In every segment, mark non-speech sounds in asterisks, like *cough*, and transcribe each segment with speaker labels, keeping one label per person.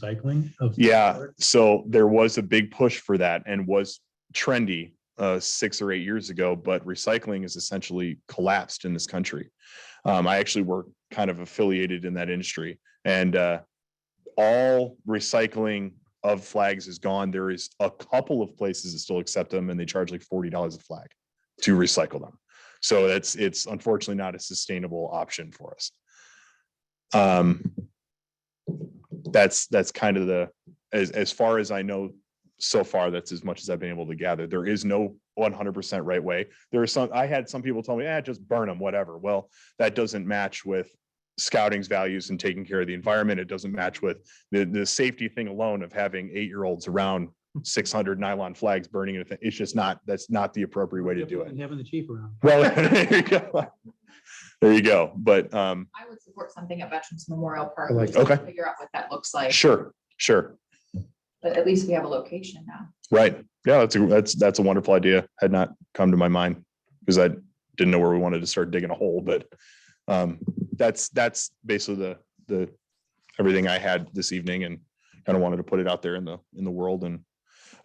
Speaker 1: recycling of.
Speaker 2: Yeah, so there was a big push for that and was trendy uh, six or eight years ago, but recycling is essentially collapsed in this country. Um, I actually work kind of affiliated in that industry and uh, all recycling of flags is gone. There is a couple of places that still accept them and they charge like forty dollars a flag to recycle them. So that's, it's unfortunately not a sustainable option for us. Um, that's, that's kind of the, as, as far as I know, so far, that's as much as I've been able to gather. There is no one hundred percent right way. There are some, I had some people tell me, ah, just burn them, whatever. Well, that doesn't match with scouting's values and taking care of the environment. It doesn't match with the, the safety thing alone of having eight-year-olds around six hundred nylon flags burning. anything. It's just not, that's not the appropriate way to do it.
Speaker 1: And having the chief around.
Speaker 2: Well, *laughs* there you go. There you go. But, um,
Speaker 3: I would support something at Veterans Memorial Park.
Speaker 1: I like
Speaker 3: We just have to
Speaker 2: Okay.
Speaker 3: Figure out what that looks like,
Speaker 2: sure, sure.
Speaker 3: but at least we have a location now.
Speaker 2: Right. Yeah, that's a, that's, that's a wonderful idea. Had not come to my mind because I didn't know where we wanted to start digging a hole, but um, that's, that's basically the, the, everything I had this evening and kind of wanted to put it out there in the, in the world and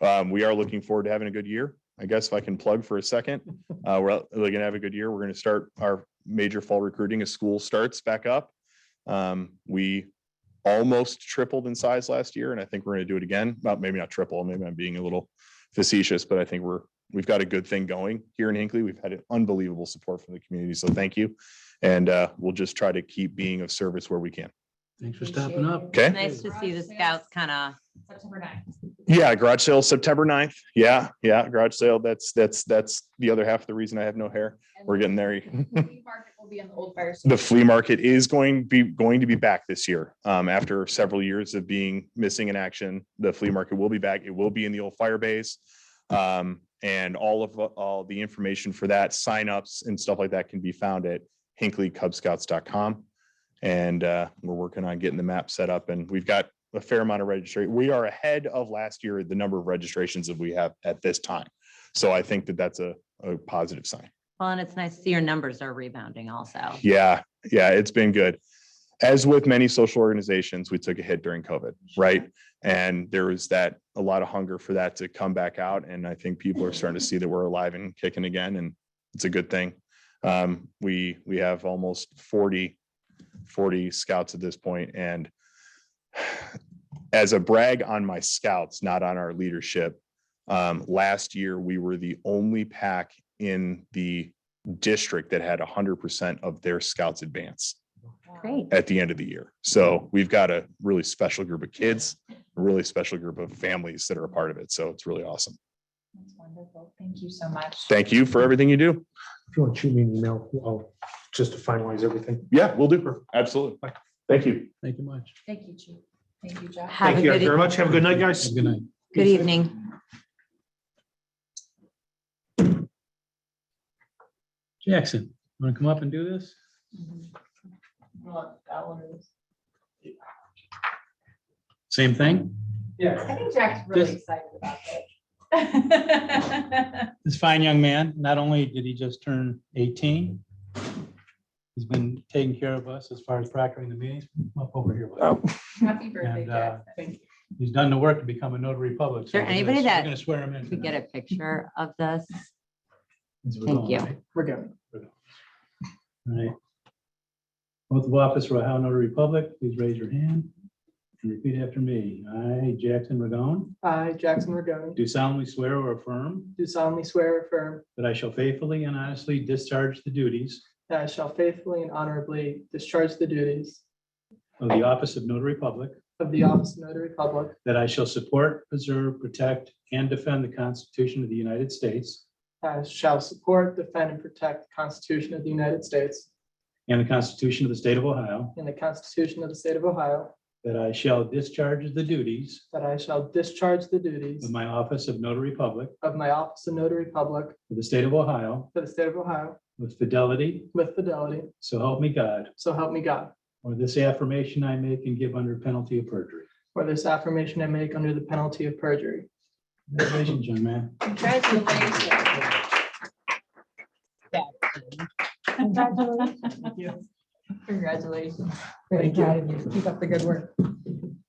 Speaker 2: um, we are looking forward to having a good year. I guess if I can plug for a second, uh, we're out- we're gonna have a good year. We're gonna start our major fall recruiting as school starts back up. Um, we almost tripled in size last year, and I think we're gonna do it again. Well, maybe not triple, maybe I'm being a little facetious, but I think we're, we've got a good thing going here in Hinckley. We've had an unbelievable support from the community, so thank you. And uh, we'll just try to keep being of service where we can.
Speaker 1: Thanks for stopping up.
Speaker 2: Okay.
Speaker 4: Nice to see the scouts kind of,
Speaker 3: September ninth.
Speaker 2: Yeah, garage sale September 9th. Yeah, yeah, garage sale. That's, that's, that's the other half of the reason I have no hair. We're getting there.
Speaker 3: The flea market will be in the old fire.
Speaker 2: the
Speaker 3: station.
Speaker 2: flea market is going be going to be back this year. Um, after several years of being missing in action, the flea market will be back. It will be in the old fire base. Um, and all of all the information for that, signups and stuff like that can be found at hinkleycubscouts.com. And uh, we're working on getting the map set up and we've got a fair amount of registration. We are ahead of last year, the number of registrations that we have at this time. So I think that that's a, a positive sign.
Speaker 4: well, and it's nice to see your numbers are rebounding also.
Speaker 2: Yeah, yeah, it's been good. As with many social organizations, we took a hit during COVID, right? And there was that, a lot of hunger for that to come back out. And I think people are starting to see that we're alive and kicking again, and it's a good thing. Um, we, we have almost 40, 40 scouts at this point, and as a brag on my scouts, not on our leadership, um, last year, we were the only pack in the district that had hundred percent of their scouts advance
Speaker 4: Great.
Speaker 2: at the end of the year. So we've got a really special group of kids, a really special group of families that are a part of it. So it's really awesome.
Speaker 3: That's wonderful. Thank you so much.
Speaker 2: Thank you for everything you do.
Speaker 5: If you want to shoot me an email, I'll just to finalize everything.
Speaker 2: Yeah, we'll do. Absolutely. Thank you.
Speaker 1: Thank you much.
Speaker 3: Thank you, Chief. Thank you, Jeff.
Speaker 4: Have a
Speaker 5: Thank you guys
Speaker 4: good
Speaker 5: very
Speaker 4: e-
Speaker 5: much. Have a good night, guys.
Speaker 1: Have a Good night.
Speaker 4: Good evening.
Speaker 1: Jackson, want to come up and do this?
Speaker 3: Mhm. Well, that one is-
Speaker 1: Same thing?
Speaker 3: I think Jack's really
Speaker 1: Just-
Speaker 3: excited about that.
Speaker 1: This fine young man, not only did he just turn eighteen, he's been taking care of us as far as proctoring the meetings up over here.
Speaker 2: Oh.
Speaker 1: bud.
Speaker 3: *laughs* Happy birthday,
Speaker 1: And, uh,
Speaker 3: Jackson. Thank you.
Speaker 1: He's done the work to become a notary public. so
Speaker 4: Is there
Speaker 1: we're gonna-
Speaker 4: anybody
Speaker 1: we're
Speaker 4: that
Speaker 1: Gonna swear him in.
Speaker 4: Could we get
Speaker 1: tonight.
Speaker 4: a picture of this?
Speaker 1: Since we're
Speaker 4: Thank
Speaker 1: going,
Speaker 4: you.
Speaker 1: right?
Speaker 3: We're good.
Speaker 1: Right. Oath of office for Ohio Notary Public, please raise your hand and repeat after me. I, Jackson Regone,
Speaker 6: I, Jackson Regone,
Speaker 1: do solemnly swear or affirm
Speaker 6: do solemnly swear or affirm
Speaker 1: that I shall faithfully and honestly discharge the duties
Speaker 6: that I shall faithfully and honorably discharge the duties
Speaker 1: of the office of notary public,
Speaker 6: of the office of notary public,
Speaker 1: that I shall support, preserve, protect, and defend the Constitution of the United States
Speaker 6: that I shall support, defend, and protect the Constitution of the United States
Speaker 1: and the Constitution of the State of Ohio,
Speaker 6: and the Constitution of the State of Ohio,
Speaker 1: that I shall discharge the duties
Speaker 6: that I shall discharge the
Speaker 1: of
Speaker 6: duties
Speaker 1: my office of notary public
Speaker 6: of my office of notary public
Speaker 1: for the State of Ohio
Speaker 6: for the State of Ohio
Speaker 1: with fidelity,
Speaker 6: with fidelity,
Speaker 1: so help me God.
Speaker 6: so help me God.
Speaker 1: Or this affirmation I make and give under penalty of perjury.
Speaker 6: For this affirmation I make under the penalty of perjury.
Speaker 1: Congratulations, young man.
Speaker 3: Congratulations. Congratulations. Very proud of you. Keep up the good work.